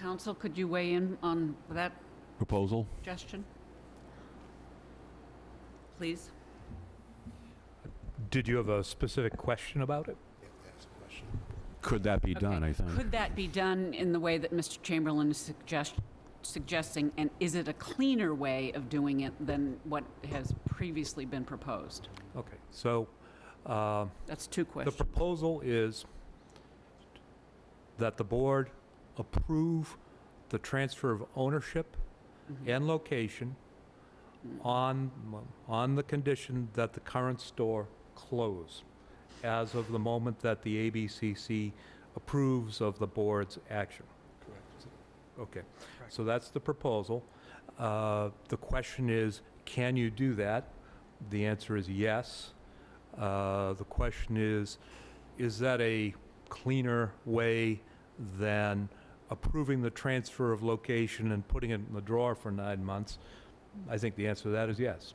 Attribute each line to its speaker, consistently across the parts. Speaker 1: Council, could you weigh in on that
Speaker 2: proposal?
Speaker 1: suggestion? Please.
Speaker 3: Did you have a specific question about it?
Speaker 2: Could that be
Speaker 1: Okay.
Speaker 2: done, I think?
Speaker 1: Could that be done in the way that Mr. Chamberlain is suggest- suggesting? And is it a cleaner way of doing it than what has previously been proposed?
Speaker 3: Okay, so um,
Speaker 1: That's two
Speaker 3: the
Speaker 1: questions.
Speaker 3: proposal is that the board approve the transfer of ownership and location on, on the condition that the current store close as of the moment that the ABCC approves of the board's action. Okay, so that's the proposal. Uh, The question is, can you do that? The answer is yes. Uh, The question is, is that a cleaner way than approving the transfer of location and putting it in the drawer for nine months? I think the answer to that is yes.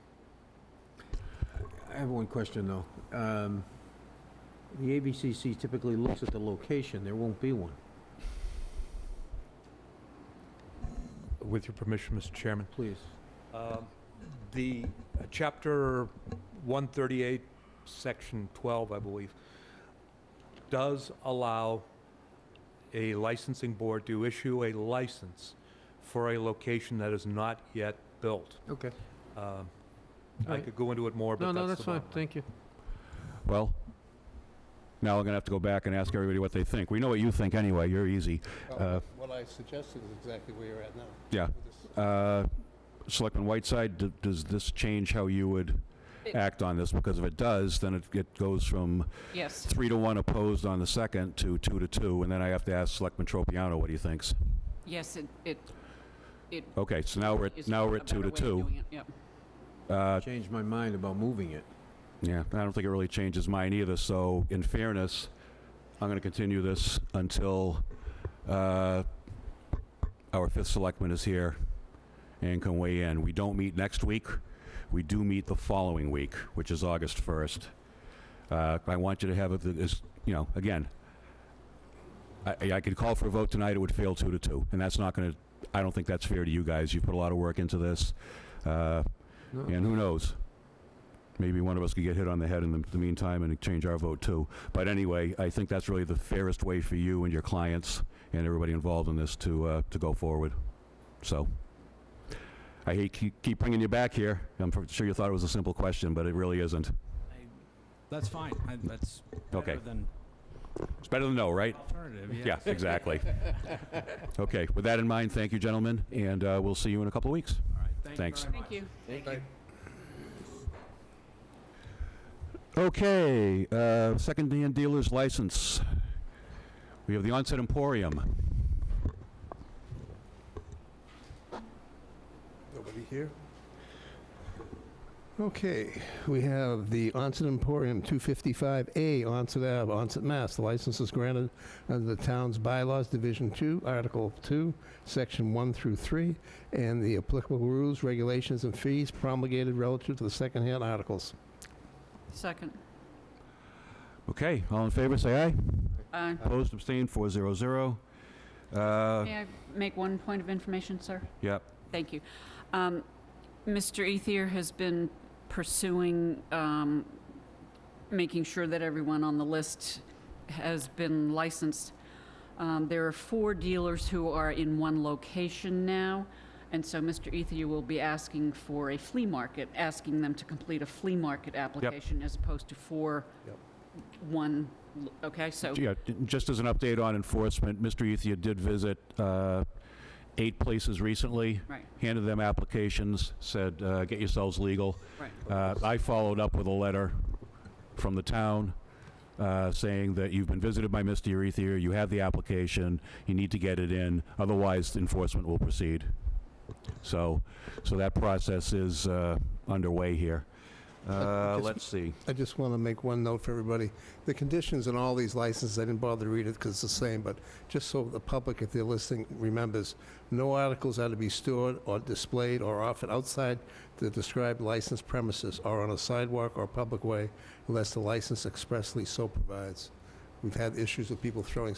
Speaker 4: I have one question, though. Um, The ABCC typically looks at the location, there won't be one,
Speaker 3: With your permission, Mr. Chairman.
Speaker 4: please.
Speaker 3: Um, The uh, Chapter 138, Section 12, I believe, does allow a licensing board to issue a license for a location that is not yet built.
Speaker 4: Okay.
Speaker 3: Um, I
Speaker 4: Alright.
Speaker 3: could go into it more,
Speaker 4: No,
Speaker 3: but that's the
Speaker 4: no, that's fine,
Speaker 3: bottom line.
Speaker 4: thank you.
Speaker 2: Well, now I'm going to have to go back and ask everybody what they think. We know what you think anyway, you're easy. Uh,
Speaker 1: Oh.
Speaker 5: Well, What I suggested is exactly where you're at now.
Speaker 2: Yeah.
Speaker 5: With this-
Speaker 2: Uh, Selectman Whiteside, d- does this change how you would
Speaker 1: It-
Speaker 2: act on this? Because if it does, then it- it goes from
Speaker 1: Yes.
Speaker 2: three to one opposed on the second to two to two, and then I have to ask Selectman Tropiano what he thinks.
Speaker 1: Yes, it, it, it
Speaker 2: Okay, so now we're, at
Speaker 1: is
Speaker 2: now
Speaker 1: a
Speaker 2: we're at two
Speaker 1: better
Speaker 2: to
Speaker 1: way of
Speaker 2: two.
Speaker 1: doing it, yeah.
Speaker 2: Uh,
Speaker 4: Changed my mind about moving it.
Speaker 2: Yeah, I don't think it really changes mine either, so in fairness, I'm going to continue this until uh, our fifth selectman is here and can weigh in. We don't meet next week, we do meet the following week, which is August 1st. Uh, I want you to have, it that is, you know, again, I I could call for a vote tonight, it would fail two to two, and that's not going to, I don't think that's fair to you guys. You've put a lot of work into this. Uh,
Speaker 4: No.
Speaker 2: and who knows? Maybe one of us could get hit on the head in the- the meantime and change our vote too. But anyway, I think that's really the fairest way for you and your clients and everybody involved in this to, uh, to go forward. So, I hate keep keep bringing you back here. I'm pr- sure you thought it was a simple question, but it really isn't.
Speaker 6: That's fine. I- That's
Speaker 2: Okay.
Speaker 6: better than
Speaker 2: It's better than no, right?
Speaker 6: alternative, yes.
Speaker 2: Yeah, exactly. Okay, with that in mind, thank you, gentlemen, and uh, we'll see you in a couple of weeks.
Speaker 6: All right, thank you
Speaker 2: Thanks.
Speaker 6: very
Speaker 1: Thank
Speaker 6: much.
Speaker 1: you.
Speaker 2: Okay, uh, second-hand dealer's license. We have the Onset Emporium.
Speaker 5: Nobody here? Okay, we have the Onset Emporium, 255A Onset Ave, Onset, Mass. The license is granted under the town's bylaws, Division 2, Article 2, Section 1 through 3, and the applicable rules, regulations, and fees promulgated relative to the secondhand articles.
Speaker 1: Second.
Speaker 2: Okay, all in favor, say aye.
Speaker 1: Uh,
Speaker 2: Opposed, abstained, 400. Uh,
Speaker 1: May I make one point of information, sir?
Speaker 2: Yep,
Speaker 1: Thank you. Um, Mr. Ethier has been pursuing, um, making sure that everyone on the list has been licensed. Um, There are four dealers who are in one location now, and so Mr. Ethier will be asking for a flea market, asking them to complete a flea market application as opposed to four,
Speaker 5: Yep.
Speaker 1: one, lo- okay, so,
Speaker 2: yeah, j- just as an update on enforcement, Mr. Ethia did visit uh, eight places recently,
Speaker 1: right,
Speaker 2: handed them applications, said, uh, get yourselves legal.
Speaker 1: right.
Speaker 2: Uh, I followed up with a letter from the town uh, saying that you've been visited by Mr. Ethier, you have the application, you need to get it in, otherwise enforcement will proceed. So, so that process is uh, underway here. Uh,
Speaker 5: Just-
Speaker 2: Let's see.
Speaker 5: I just want to make one note for everybody. The conditions in all these licenses, I didn't bother to read it because it's the same, but just so the public, if they're listening, remembers, no articles are to be stored or displayed or offered outside the described licensed premises or on a sidewalk or public way unless the license expressly so provides. We've had issues with people throwing